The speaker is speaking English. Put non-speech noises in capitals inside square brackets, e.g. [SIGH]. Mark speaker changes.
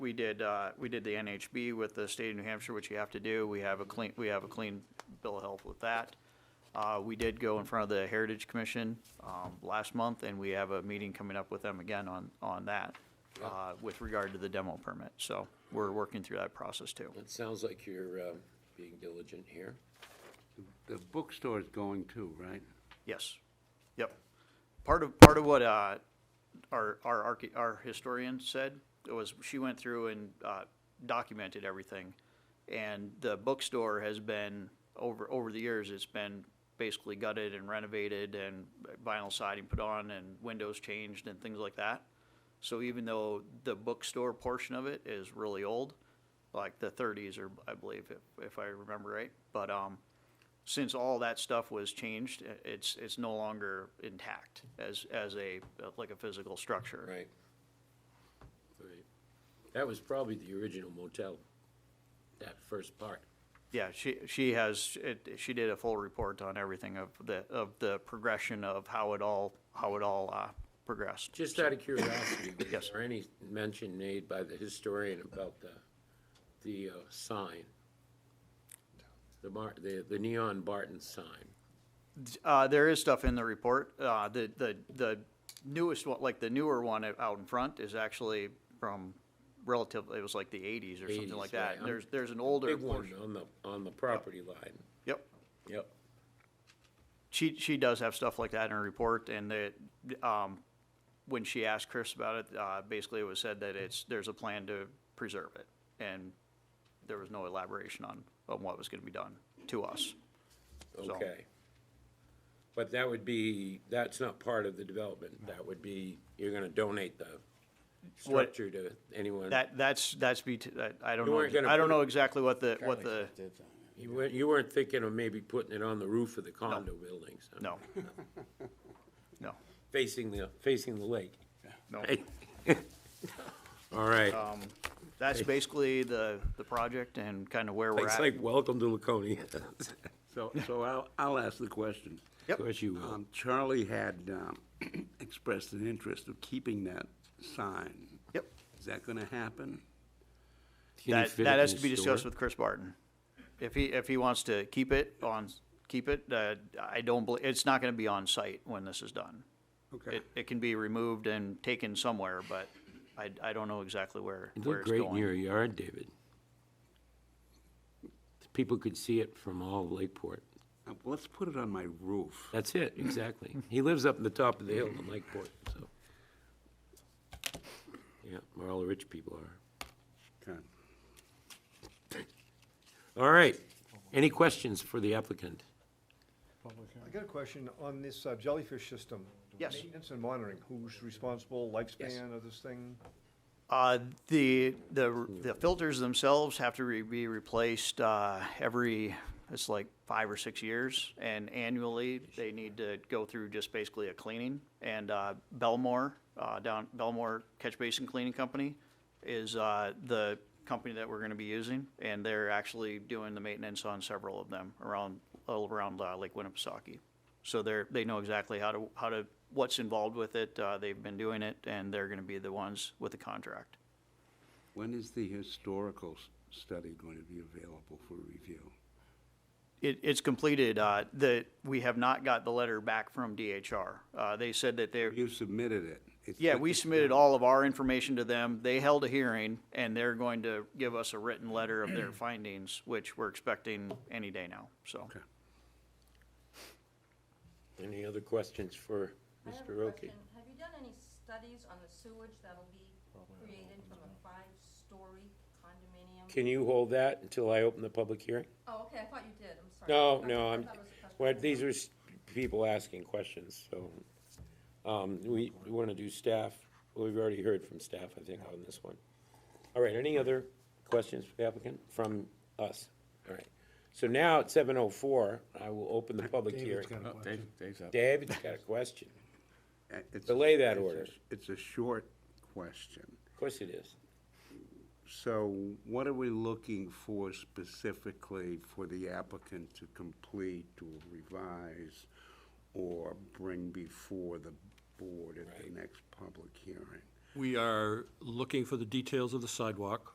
Speaker 1: we did, uh, we did the NHB with the state of New Hampshire, which you have to do. We have a clean, we have a clean bill of health with that. Uh, we did go in front of the Heritage Commission, um, last month, and we have a meeting coming up with them again on, on that, uh, with regard to the demo permit. So we're working through that process too.
Speaker 2: It sounds like you're um, being diligent here.
Speaker 3: The bookstore is going too, right?
Speaker 1: Yes. Yep. Part of, part of what, uh, our, our, arche- our historian said was she went through and, uh, documented everything. And the bookstore has been, over, over the years, it's been basically gutted and renovated and vinyl siding put on and windows changed and things like that. So even though the bookstore portion of it is really old, like the thirties or I believe if, if I remember right, but, um, since all that stuff was changed, i- it's, it's no longer intact as, as a, like a physical structure.
Speaker 2: Right. Right. That was probably the original motel, that first part.
Speaker 1: Yeah, she, she has, it, she did a full report on everything of the, of the progression of how it all, how it all, uh, progressed.
Speaker 2: Just out of curiosity, was
Speaker 1: Yes.
Speaker 2: there any mention made by the historian about the, the uh, sign? The Mar, the the neon Barton sign?
Speaker 1: Uh, there is stuff in the report, uh, the, the, the newest one, like the newer one out in front is actually from relatively, it was like the eighties or something
Speaker 2: 80s,
Speaker 1: like that.
Speaker 2: right. I'm-
Speaker 1: There's, there's an older.
Speaker 2: Big one
Speaker 1: portion-
Speaker 2: on the, on the property line.
Speaker 1: Yep.
Speaker 2: Yep.
Speaker 1: she she does have stuff like that in her report, and that um, when she asked Chris about it, uh, basically it was said that it's there's a plan to preserve it, and there was no elaboration on on what was going to be done to us. So-
Speaker 2: Okay. But that would be, that's not part of the development. That would be, you're gonna donate the
Speaker 1: What-
Speaker 2: structure to anyone.
Speaker 1: That that's that's be that, I don't
Speaker 2: You weren't
Speaker 1: know
Speaker 2: gonna
Speaker 1: I don't
Speaker 2: put it-
Speaker 1: know exactly what the what the
Speaker 2: You weren't, you weren't thinking of maybe putting it on the roof of the condo buildings? huh?
Speaker 1: no no
Speaker 2: Facing the, facing the lake.
Speaker 1: no
Speaker 2: All right.
Speaker 1: Um, that's basically the the project and kind of where we're
Speaker 2: It's
Speaker 1: at.
Speaker 2: like, welcome to Laconia. [LAUGHS]
Speaker 3: So, so I'll, I'll ask the question.
Speaker 1: Yep.
Speaker 2: Of course you will.
Speaker 3: Um, Charlie had um, [CLEARS THROAT] expressed an interest of keeping that sign.
Speaker 1: Yep.
Speaker 3: Is that gonna happen?
Speaker 2: Can you
Speaker 1: That,
Speaker 2: fit it
Speaker 1: that
Speaker 2: in
Speaker 1: has
Speaker 2: the
Speaker 1: to be discussed
Speaker 2: store?
Speaker 1: with Chris Barton. If he, if he wants to keep it on, keep it, uh, I don't believe, it's not gonna be on site when this is done.
Speaker 3: Okay.
Speaker 1: It, it can be removed and taken somewhere, but I, I don't know exactly where,
Speaker 2: It
Speaker 1: where
Speaker 2: looked
Speaker 1: it's
Speaker 2: great in your
Speaker 1: going.
Speaker 2: yard, David. People could see it from all of Lakeport.
Speaker 3: Uh, well, Let's put it on my roof.
Speaker 2: That's it, exactly. He lives up in the top of the hill in Lakeport, so. Yeah, where all the rich people are.
Speaker 3: Okay.
Speaker 2: All right. Any questions for the applicant?
Speaker 4: I got a question on this uh, jellyfish system.
Speaker 1: Yes.
Speaker 4: Maintenance and monitoring, who's responsible, lifespan of this thing?
Speaker 1: Uh, the, the, the filters themselves have to re- be replaced, uh, every, it's like five or six years. And annually, they need to go through just basically a cleaning. And, uh, Belmore, uh, down, Belmore Catch Basin Cleaning Company is, uh, the company that we're gonna be using. And they're actually doing the maintenance on several of them around, all around, uh, Lake Winnipesaukee. So they're, they know exactly how to, how to, what's involved with it, uh, they've been doing it, and they're gonna be the ones with the contract.
Speaker 3: When is the historical s- study going to be available for review?
Speaker 1: It, it's completed, uh, that, we have not got the letter back from DHR. Uh, they said that they're,
Speaker 3: You submitted it. It's-
Speaker 1: yeah, we
Speaker 3: it's-
Speaker 1: submitted all of our information to them, they held a hearing, and they're going to give us a written letter of their findings, which we're expecting any day now, so.
Speaker 3: Okay.
Speaker 2: Any other questions for
Speaker 5: I have a
Speaker 2: Mr. Roki?
Speaker 5: question. Have you done any studies on the sewage that'll be created from a five-story condominium?
Speaker 2: Can you hold that until I open the public hearing?
Speaker 5: Oh, okay, I thought you did, I'm sorry.
Speaker 2: No,
Speaker 5: I
Speaker 2: no,
Speaker 5: thought
Speaker 2: I'm,
Speaker 5: that was a question.
Speaker 2: well, these are s- people asking questions, so, um, we, we wanna do staff, we've already heard from staff, I think, on this one. All right, any other questions for the applicant from us? All right, so now at seven oh four, I will open the public hearing. David's got a question,
Speaker 3: Uh, it's-
Speaker 2: Delay that
Speaker 3: it's a-
Speaker 2: order.
Speaker 3: It's a short question.
Speaker 2: of course it is.
Speaker 3: So what are we looking for specifically for the applicant to complete or revise or bring before the board at the next public hearing?
Speaker 6: We are looking for the details of the sidewalk.